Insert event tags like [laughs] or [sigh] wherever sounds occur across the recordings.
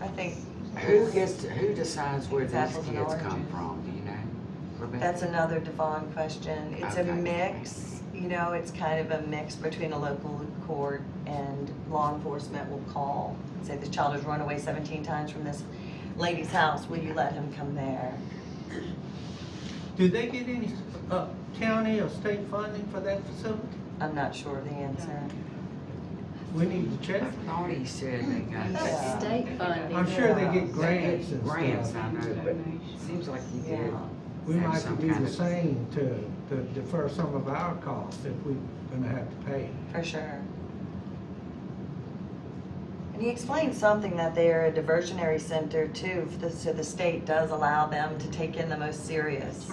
I think Who gets, to- who decides where these Apples and kids come oranges. from, do you know? Rebecca? that's another Devon question. It's a Okay. mix, you know, it's kind of a mix between a local court and law enforcement will call. Say this child has run away seventeen times from this lady's house, will you let him come there? Do they get any uh, county or state funding for that facility? I'm not sure of the answer. We need to I check. thought he said they got. Yeah. State funding. I'm sure they Yeah. get grants and Grants, stuff. I know, but it seems like he did. Yeah. We have might have some to do kind the of- same to, to defer some of our costs if we're gonna have to pay. For sure. And he explained something that they're a diversionary center too, f- the- so the state does allow them to take in the most serious.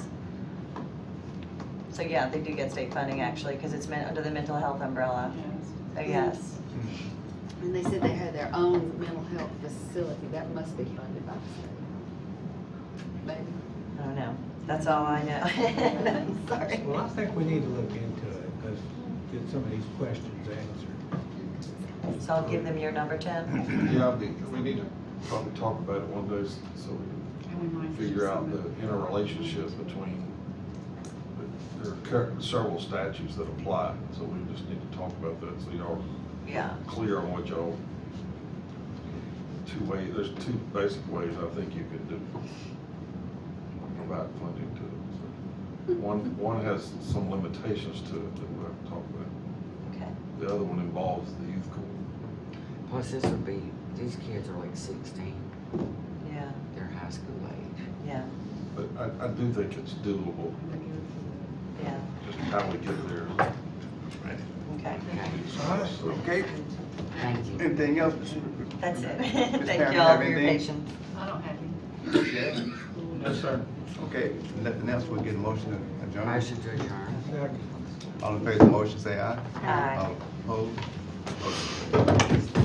So yeah, they do get state funding actually, because it's meant under the mental health umbrella. So yes, And they said they had their own mental health facility, that must be funded by the state. Maybe. I don't know. That's all I know. [laughs] Sorry. Well, I think we need to look into it, because get some of these questions answered. So I'll give them your number, Mm-hmm. Tim. Yeah, I mean, we need to probably talk about it one of those, so we can figure out the interrelationship between, there are cur- several statutes that apply, so we just need to talk about that, so y'all Yeah. are clear on what y'all, two ways, there's two basic ways I think you could do, provide funding to it. So, One, one has some limitations to it that we'll have to talk about. Okay. The other one involves the youth court. Plus, this would be, these kids are like sixteen, Yeah. they're high school age. Yeah. But I, I do think it's doable, Yeah. just how we get there. Okay. Okay, So, Okay, thank you. anything else? That's [laughs] it. Ms. Thank Pam, you all have for your anything? patience. I don't have any. Yes. Yes, sir. Okay, nothing else, we'll get a motion to adjourn. Motion to adjourn. Second. All in favor of the motion, say aye. Aye. All opposed? Motion carries.